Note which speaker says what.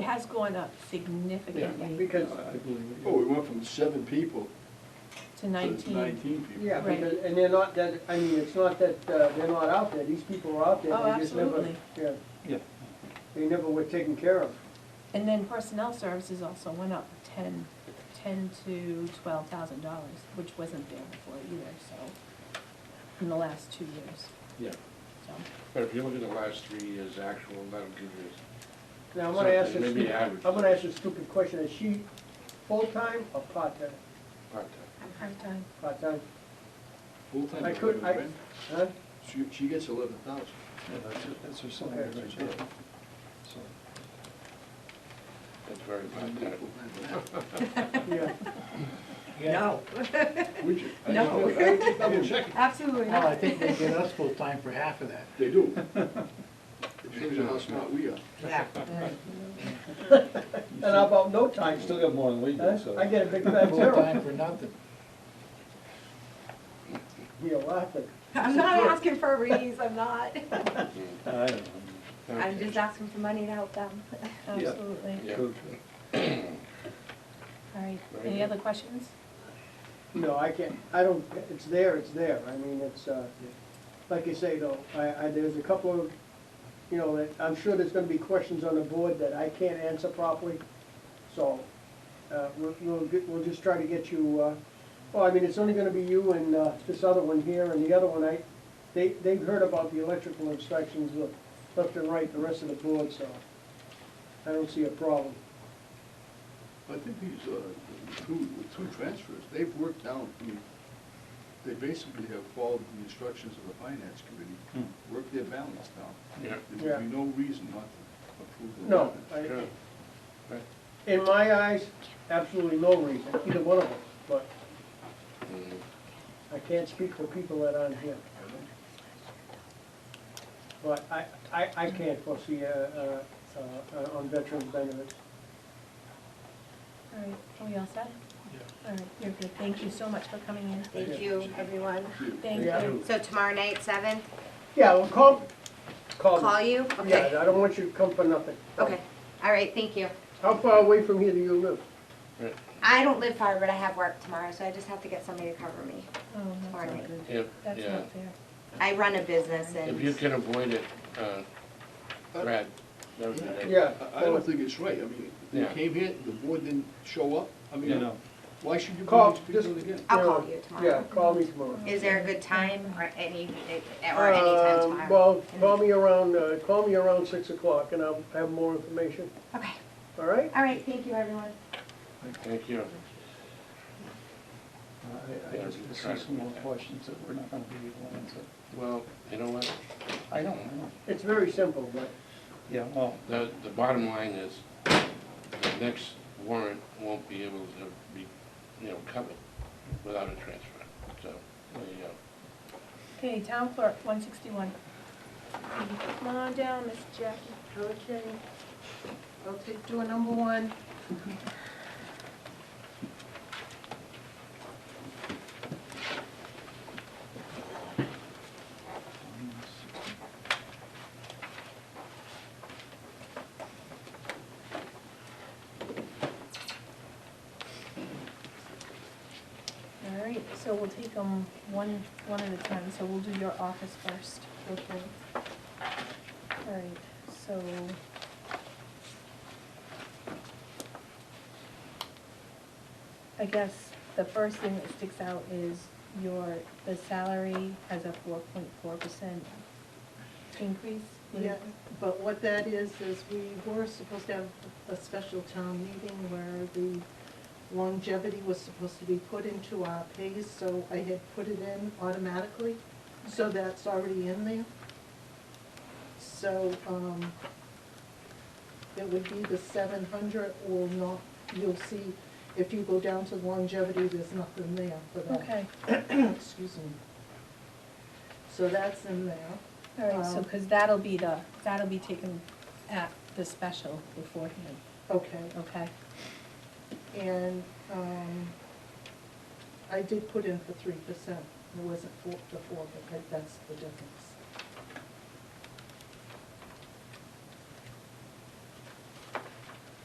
Speaker 1: has gone up
Speaker 2: Yeah,
Speaker 1: significantly
Speaker 2: because,
Speaker 3: I believe it.
Speaker 4: Oh,
Speaker 5: Well, we went from seven people
Speaker 1: to
Speaker 5: to
Speaker 1: nineteen.
Speaker 5: nineteen people.
Speaker 2: yeah,
Speaker 1: Right.
Speaker 2: because, and they're not that, I mean, it's not that uh, they're not out there, these people are out there.
Speaker 1: Oh,
Speaker 2: they just never-
Speaker 1: absolutely.
Speaker 2: Yeah,
Speaker 3: Yeah.
Speaker 2: they never were taken care of.
Speaker 1: And then personnel services also went up ten, ten to twelve thousand dollars, which wasn't there before either, so, in the last two years,
Speaker 4: Yeah,
Speaker 1: so.
Speaker 4: but if you look at the last three years' actual, that'll give you,
Speaker 2: Now, I'm gonna ask
Speaker 4: Something,
Speaker 2: this,
Speaker 4: maybe
Speaker 2: stupid-
Speaker 4: average.
Speaker 2: I'm gonna ask a stupid question, is she full-time or part-time?
Speaker 4: but, uh,
Speaker 1: Part-time.
Speaker 2: Part-time,
Speaker 5: Full-time
Speaker 2: I could- I-
Speaker 5: equivalent,
Speaker 2: huh?
Speaker 5: right? She, she gets eleven thousand.
Speaker 3: Yeah, that's, it. that's her salary
Speaker 2: Okay.
Speaker 3: right there. So,
Speaker 4: that's very bad.
Speaker 2: Yeah,
Speaker 6: No,
Speaker 5: Would you? I
Speaker 6: No.
Speaker 5: just- I was just double checking.
Speaker 6: absolutely
Speaker 3: Oh,
Speaker 7: Well, I
Speaker 6: not.
Speaker 7: think they get us full time for half of that.
Speaker 5: They do. It shows you how smart we are.
Speaker 6: Yeah.
Speaker 2: and about no
Speaker 3: I
Speaker 2: time,
Speaker 3: still got more than we do,
Speaker 2: huh?
Speaker 3: so.
Speaker 2: I get a big fat
Speaker 7: Full time
Speaker 2: zero.
Speaker 7: for nothing.
Speaker 2: You're laughing.
Speaker 6: I'm not asking for a raise, I'm not.
Speaker 3: I don't know.
Speaker 6: I'm just asking for money to help them.
Speaker 1: Absolutely.
Speaker 4: Yeah.
Speaker 3: Coach,
Speaker 1: All right,
Speaker 4: Very
Speaker 1: any
Speaker 4: good.
Speaker 1: other questions?
Speaker 2: No, I can't, I don't, it's there, it's there, I mean, it's, uh, like you say though, I, I, there's a couple of, you know, that I'm sure there's gonna be questions on the board that I can't answer properly, so, uh, we'll, we'll, get- we'll just try to get you, uh, well, I mean, it's only gonna be you and, uh, this other one here, and the other one, I, they, they've heard about the electrical inspections, look, left and right, the rest of the board, so, I don't see a problem.
Speaker 5: I think these, uh, two, the two transfers, they've worked out, I mean, they basically have followed the instructions of the finance committee,
Speaker 2: Hmm.
Speaker 5: worked their balance down.
Speaker 4: Yeah,
Speaker 5: There would be no reason not to approve the.
Speaker 2: No,
Speaker 5: warrant.
Speaker 2: I,
Speaker 4: sure.
Speaker 2: In my eyes, absolutely no reason, either one of us, but
Speaker 4: Mhm.
Speaker 2: I can't speak for people that aren't here. But I, I, I can't foresee, uh, uh, uh, on veterans benefits.
Speaker 1: All right, are we all set? All right, you're good, thank you so much for coming in.
Speaker 2: Yeah.
Speaker 6: Thank you, everyone.
Speaker 1: Thank
Speaker 2: Yeah.
Speaker 1: you.
Speaker 6: So tomorrow night, seven,
Speaker 2: Yeah, well, call, call. me.
Speaker 6: call you? Okay,
Speaker 2: Oh. Yeah, I don't want you to come for nothing.
Speaker 6: okay. All right, thank you.
Speaker 2: How far away from here do you live?
Speaker 6: I don't live far, but I have work tomorrow, so I just have to get somebody to cover me.
Speaker 1: Oh, that's not
Speaker 6: Alright.
Speaker 1: good.
Speaker 4: If,
Speaker 1: That's
Speaker 4: yeah,
Speaker 1: not fair.
Speaker 6: I run a business
Speaker 4: if you
Speaker 6: and,
Speaker 4: can avoid it, uh, Brad, that would be nice.
Speaker 2: Yeah.
Speaker 5: I- I don't think it's right, I mean, they
Speaker 4: Yeah.
Speaker 5: came here, the board didn't show up, I
Speaker 3: You
Speaker 5: mean,
Speaker 3: know,
Speaker 5: why should you
Speaker 2: Call,
Speaker 5: bring these
Speaker 2: just-
Speaker 5: people again?
Speaker 6: I'll call
Speaker 2: Yeah,
Speaker 6: you
Speaker 2: Yeah,
Speaker 6: tomorrow.
Speaker 2: call me tomorrow.
Speaker 6: Is there a good time or any, or any time
Speaker 2: Um,
Speaker 6: tomorrow?
Speaker 2: Well, call me around, uh, call me around six o'clock and I'll have more information,
Speaker 6: Okay,
Speaker 2: all right?
Speaker 6: all right, thank you, everyone.
Speaker 4: Thank you.
Speaker 3: I, I just see some more questions that we're not gonna be able to answer.
Speaker 4: Well, you know what,
Speaker 3: I don't know.
Speaker 2: It's very simple, but.
Speaker 3: Yeah, well,
Speaker 4: the, the bottom line is, the next warrant won't be able to be, you know, covered without a transfer, so, there you go.
Speaker 1: Okay, town clerk, one sixty-one.
Speaker 8: Come on down, Miss Jackie. Okay. I'll take door number one.
Speaker 1: All right, so we'll take them one, one at a time, so we'll do your office first.
Speaker 8: Okay.
Speaker 1: All right, so. I guess the first thing that sticks out is your, the salary has a four point four percent increase. What is-
Speaker 8: Yeah, but what that is, is we were supposed to have a special town meeting where the longevity was supposed to be put into our pay, so I had put it in automatically, so that's already in there. So, um, it would be the seven hundred or not, you'll see, if you go down to longevity, there's nothing there for that.
Speaker 1: Okay,
Speaker 8: Excuse me. So that's in there.
Speaker 1: all right, so,
Speaker 8: Um,
Speaker 1: because that'll be the, that'll be taken at the special beforehand,
Speaker 8: Okay. um,
Speaker 1: okay?
Speaker 8: And, um, I did put in for three percent, it wasn't four, the four, but that- that's the difference.